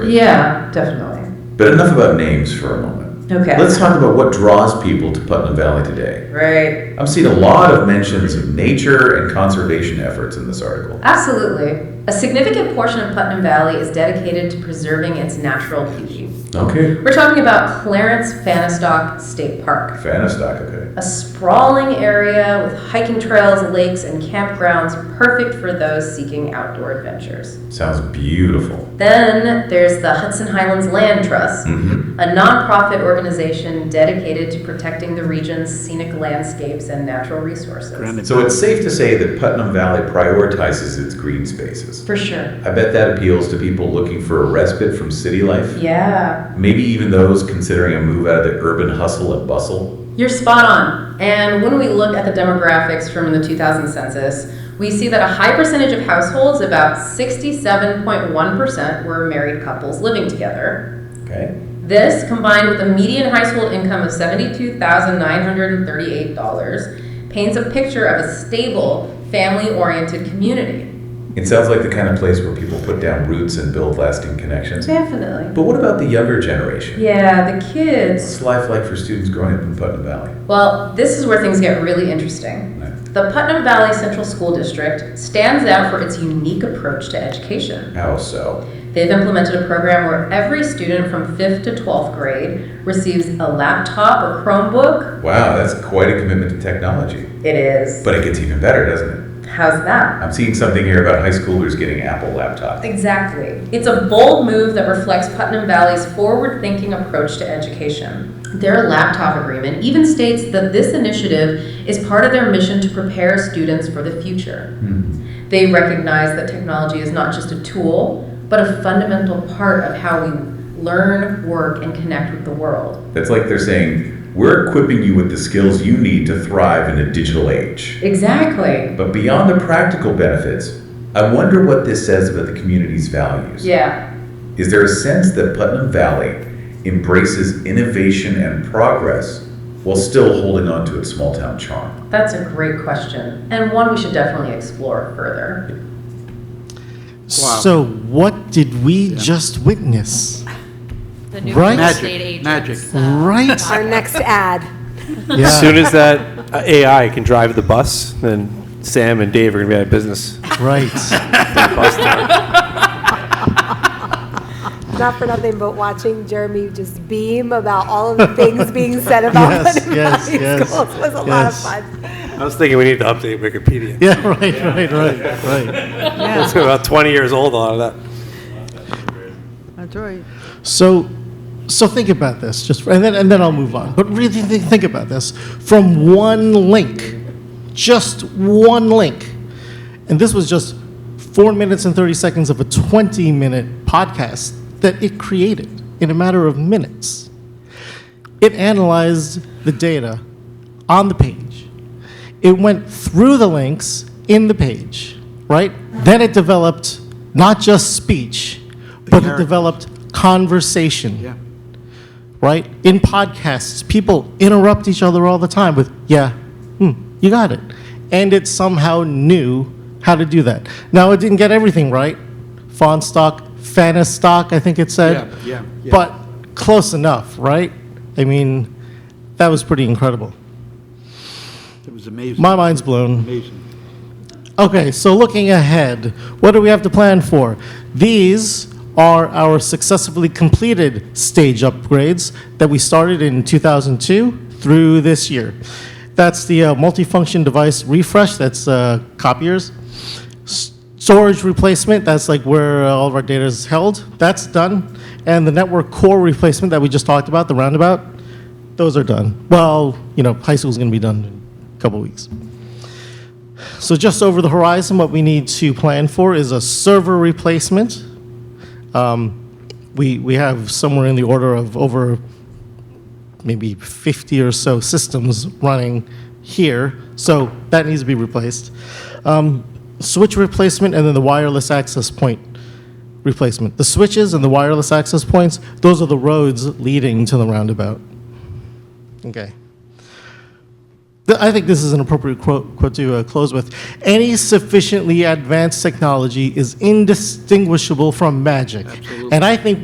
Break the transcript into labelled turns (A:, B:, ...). A: Yeah, definitely.
B: But enough about names for a moment.
A: Okay.
B: Let's talk about what draws people to Putnam Valley today.
A: right.
B: I've seen a lot of mentions of nature and conservation efforts in this article.
C: Absolutely. A significant portion of Putnam Valley is dedicated to preserving its natural beauty.
B: Okay.
C: We're talking about Clarence Fanistock State Park,
B: Fanistock, okay.
C: a sprawling area with hiking trails, lakes, and campgrounds perfect for those seeking outdoor adventures.
B: Sounds beautiful.
C: Then there's the Hudson Highlands Land Trust,
B: Mm-hmm.
C: a nonprofit organization dedicated to protecting the region's scenic landscapes and natural resources.
D: Granted.
B: So it's safe to say that Putnam Valley prioritizes its green spaces.
C: For sure.
B: I bet that appeals to people looking for a respite from city life.
C: Yeah.
B: Maybe even those considering a move out of the urban hustle and bustle.
C: You're spot on. And when we look at the demographics from the 2000 census, we see that a high percentage of households, about 67.1%, were married couples living together.
B: Okay.
C: This, combined with a median household income of $72,938, paints a picture of a stable, family oriented community.
B: It sounds like the kind of place where people put down roots and build lasting connections.
C: Definitely.
B: But what about the younger generation?
C: Yeah, the kids.
B: What's life like for students growing up in Putnam Valley?
C: Well, this is where things get really interesting.
B: No.
C: The Putnam Valley Central School District stands out for its unique approach to education.
B: How so?
C: They've implemented a program where every student from 5th to 12th grade receives a laptop or Chromebook.
B: Wow, that's quite a commitment to technology.
C: It is.
B: But it gets even better, doesn't it?
C: How's that?
B: I'm seeing something here about high schoolers getting Apple laptops.
C: Exactly. It's a bold move that reflects Putnam Valley's forward thinking approach to education. Their laptop agreement even states that this initiative is part of their mission to prepare students for the future.
B: Hmm.
C: They recognize that technology is not just a tool, but a fundamental part of how we learn, work, and connect with the world.
B: That's like they're saying, we're equipping you with the skills you need to thrive in a digital age.
C: Exactly.
B: But beyond the practical benefits, I wonder what this says about the community's values.
C: Yeah.
B: Is there a sense that Putnam Valley embraces innovation and progress while still holding on to its small town charm?
C: That's a great question, and one we should definitely explore further.
D: Wow.
E: So what did we just witness?
F: The new
E: Right?
F: real
E: Magic,
F: estate agents.
D: magic.
F: uh,
E: Right?
G: Our next ad.
E: Yeah.
H: As soon as that uh, AI can drive the bus, then Sam and Dave are going to be out of business.
E: right.
H: Bus driver.
G: Not for nothing, but watching Jeremy just beam about all of the things being said about
E: Yes,
G: Putnam
E: yes,
G: Valley
E: yes,
G: schools was a lot of
E: yes.
G: fun.
H: I was thinking we need to update Wikipedia.
E: Yeah, right, right, right, right.
H: It's about 20 years old on that.
F: That's right.
E: So so think about this just and then and then I'll move on. But really think, think about this from one link. Just one link. And this was just 4 minutes and 30 seconds of a 20 minute podcast that it created in a matter of minutes. It analyzed the data on the page. It went through the links in the page, right? Then it developed not just speech, but it
D: characters.
E: developed conversation
D: Yeah.
E: right? In podcasts, people interrupt each other all the time with, yeah, hmm, you got it. And it somehow knew how to do that. Now, it didn't get everything right. Font stock, stock, I think it said.
D: Yeah, yeah, yeah.
E: But close enough, right? I mean, that was pretty incredible.
D: It was amazing.
E: My mind's blown.
D: Amazing.
E: Okay, so looking ahead, what do we have to plan for? These are our successfully completed stage upgrades that we started in 2002 through this year. That's the uh, multifunction device refresh, that's uh, copiers. S- Storage replacement, that's like where uh, all of our data is held, that's done. And the network core replacement that we just talked about, the roundabout, those are done. Well, you know, high school's gonna be done in a couple weeks. So just over the horizon, what we need to plan for is a server replacement. Um, we, we have somewhere in the order of over maybe 50 or so systems running here, so that needs to be replaced. Um, switch replacement and then the wireless access point replacement. The switches and the wireless access points, those are the roads leading to the roundabout. Okay. Th- I think this is an appropriate quote, quote to uh, close with. Any sufficiently advanced technology is indistinguishable from magic. And I think